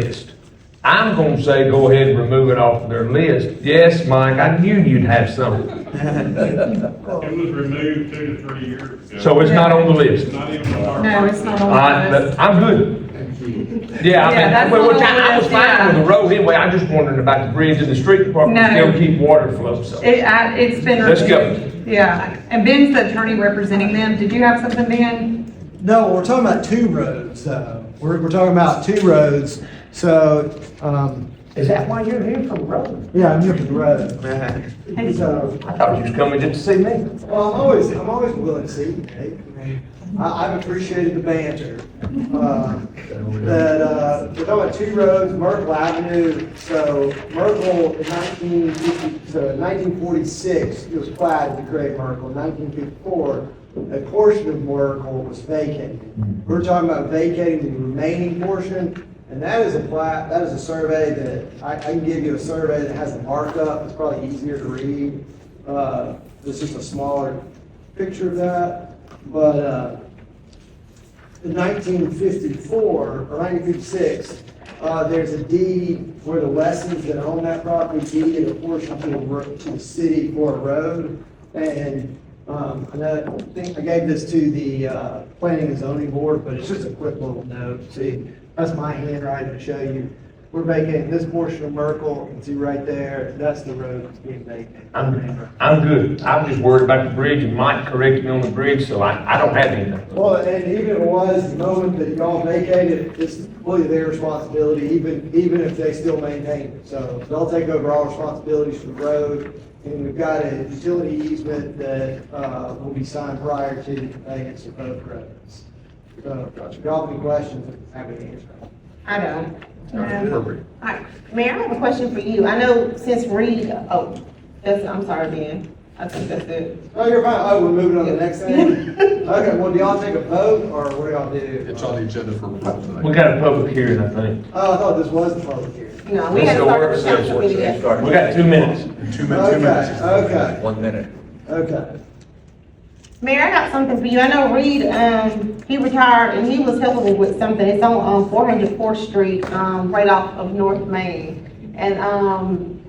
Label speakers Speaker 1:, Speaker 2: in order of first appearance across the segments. Speaker 1: list. I'm gonna say go ahead and remove it off their list. Yes, Mike, I knew you'd have something.
Speaker 2: It was removed two to three years ago.
Speaker 1: So it's not on the list.
Speaker 2: It's not even on our.
Speaker 3: No, it's not on
Speaker 1: I,
Speaker 3: the list.
Speaker 1: Uh, but I'm good. Yeah, I
Speaker 3: Yeah,
Speaker 1: mean,
Speaker 3: that's
Speaker 1: well,
Speaker 3: not
Speaker 1: which I I was
Speaker 3: on the list,
Speaker 1: fine with the
Speaker 3: yeah.
Speaker 1: road anyway, I just wondering about the bridge and the street department,
Speaker 3: No.
Speaker 1: still keep water flow, so.
Speaker 3: It, I, it's been.
Speaker 1: Let's go.
Speaker 3: reviewed. Yeah, and Ben's the attorney representing them. Did you have something, Ben?
Speaker 4: No, we're talking about two roads, though. We're, we're talking about two roads, so, um,
Speaker 1: Is that why you're here for the road?
Speaker 4: yeah, I'm here for the road. So,
Speaker 1: I thought you was coming just to see me.
Speaker 4: well, I'm always, I'm always willing to see, you, Nate. I mean, I, I've appreciated the banter. Uh, That, uh, we're talking about two roads, Myrtle Avenue, so Myrtle in nineteen fifty, so nineteen forty-six, it was platted to create Myrtle. In Nineteen fifty-four, a portion of Myrtle was vacated. We're talking about vacating the remaining portion, and that is a plat, that is a survey that, I, I can give you a survey that has a markup, it's probably easier to read. Uh, this is a smaller picture of that, but, uh, in 1954 or 1956, uh, there's a deed where the Lessons that own that property deeded a portion to the, ro- to the city for a road. And, um, and I think I gave this to the, uh, planning and zoning board, but it's just a quick little note. See, that's my handwriting to show you. We're vacating this portion of Merkel, and see right there, that's the road that's being vacated.
Speaker 1: I'm, I'm good. I'm just worried about the bridge and Mike corrected me on the bridge, so I, I don't have anything.
Speaker 4: Well, and even if it was, the moment that y'all vacated, it's completely their responsibility, even, even if they still maintain it. So they'll take over all responsibilities for the road, and we've got a utility easement that, uh, will be signed prior to the conveyance of both roads. So, if y'all have any questions, I'm happy to answer them.
Speaker 5: I don't.
Speaker 1: Appropriate.
Speaker 5: I- Mayor, I have a question for you. I know since Reed, oh, that's, I'm sorry, Ben. I think that's it.
Speaker 4: No, you're fine, oh, we're moving on to the next thing? Okay, well, do y'all take a vote, or what do y'all do?
Speaker 6: It's on the agenda for approval tonight.
Speaker 1: We got a public hearing, I think.
Speaker 4: Oh, I thought this was the public hearing.
Speaker 5: No, we
Speaker 1: Let's
Speaker 5: had
Speaker 1: go
Speaker 5: to
Speaker 1: work
Speaker 5: start the council
Speaker 1: session.
Speaker 5: meeting. yesterday.
Speaker 1: We got two minutes.
Speaker 6: Two minutes, two
Speaker 4: Okay,
Speaker 6: minutes.
Speaker 4: okay,
Speaker 7: One minute.
Speaker 4: okay.
Speaker 5: Mayor, I got something for you. I know Reed, um, he retired and he was helping me with something. It's on, um, four hundred fourth street, um, right off of North Main. And, um,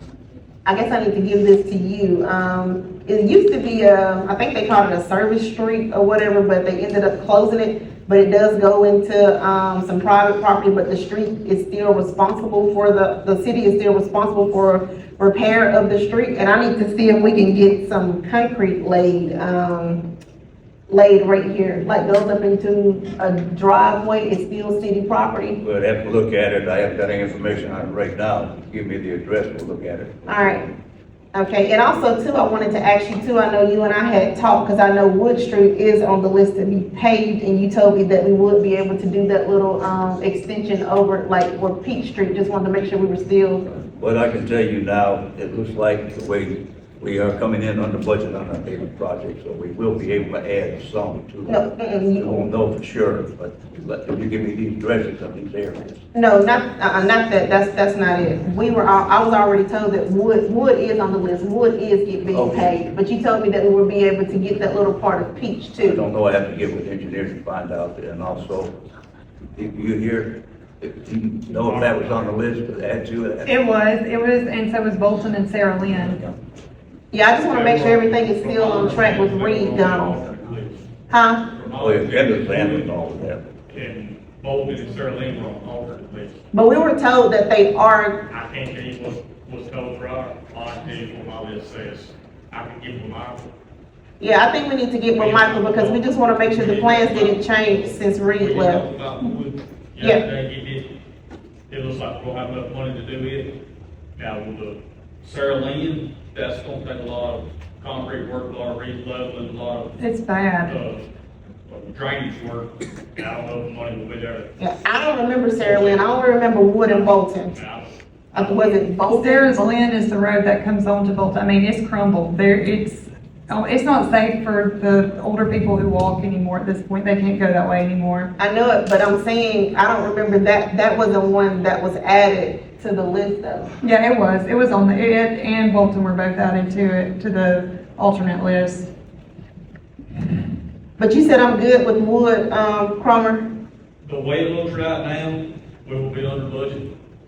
Speaker 5: I guess I need to give this to you. Um, it used to be a, I think they called it a service street or whatever, but they ended up closing it. But it does go into, um, some private property, but the street is still responsible for the, the city is still responsible for repair of the street. And I need to see if we can get some concrete laid, um, laid right here, like goes up into a driveway, it's still city property.
Speaker 7: We'll have to look at it. I haven't got any information on it right now. Give me the address, we'll look at it.
Speaker 5: All right. Okay, and also too, I wanted to ask you too, I know you and I had talked, because I know Wood Street is on the list to be paved, and you told me that we would be able to do that little, um, extension over, like, where Peach Street, just wanted to make sure we were still,
Speaker 7: What I can tell you now, it looks like the way we are coming in under budget on our paving project, so we will be able to add some to
Speaker 5: No,
Speaker 7: it.
Speaker 5: mm-mm, you-
Speaker 7: We won't know for sure, but let- if you give me the addresses of these areas.
Speaker 5: no, not, uh, not that, that's, that's not it. We were, all I was already told that Wood, Wood is on the list, Wood is get being
Speaker 7: Okay.
Speaker 5: paved, but you told me that we would be able to get that little part of Peach
Speaker 7: I
Speaker 5: too.
Speaker 7: don't know, I have to get with engineers to find out, and also, if you hear, if you know if that was on the list, to add to it.
Speaker 3: It was, it was, and so was Bolton and Sarah Lynn.
Speaker 5: Yeah, I just wanna make sure everything is still on track with Reed Donald. Huh?
Speaker 7: Oh, yeah, Kendall's handling all of that.
Speaker 2: And Bolton and Sterling were on alternate list.
Speaker 5: But we were told that they are,
Speaker 2: I can't tell you what, what's told for our, all I can tell you what my list says. I can give them my,
Speaker 5: yeah, I think we need to get with Michael because we just wanna make sure the plans didn't change since
Speaker 2: we
Speaker 5: Reed
Speaker 2: did talk
Speaker 5: left.
Speaker 2: about wood.
Speaker 5: Yeah.
Speaker 2: Yesterday, it did, it looks like we'll have enough money to do it. Now, with the Sarah Lynn, that's gonna take a lot of concrete work, a lot of re-leveling, a lot of,
Speaker 3: It's bad.
Speaker 2: uh, drainage work. I don't know if the money will be there.
Speaker 5: Yeah, I don't remember Sarah Lynn, I only remember Wood and Bolton.
Speaker 2: And I don't-
Speaker 5: Uh, Was it Bolton?
Speaker 3: Sarah's Lynn is the road that comes on to Bolton. I mean, it's crumbled. There, it's, oh, it's not safe for the older people who walk anymore at this point. They can't go that way anymore.
Speaker 5: I know it, but I'm saying, I don't remember that, that was the one that was added to the list though.
Speaker 3: Yeah, it was. It was on the, it and Bolton were both added to it, to the alternate list.
Speaker 5: But you said I'm good with Wood, um, Cromer?
Speaker 2: The way it looks right now, we will be under budget.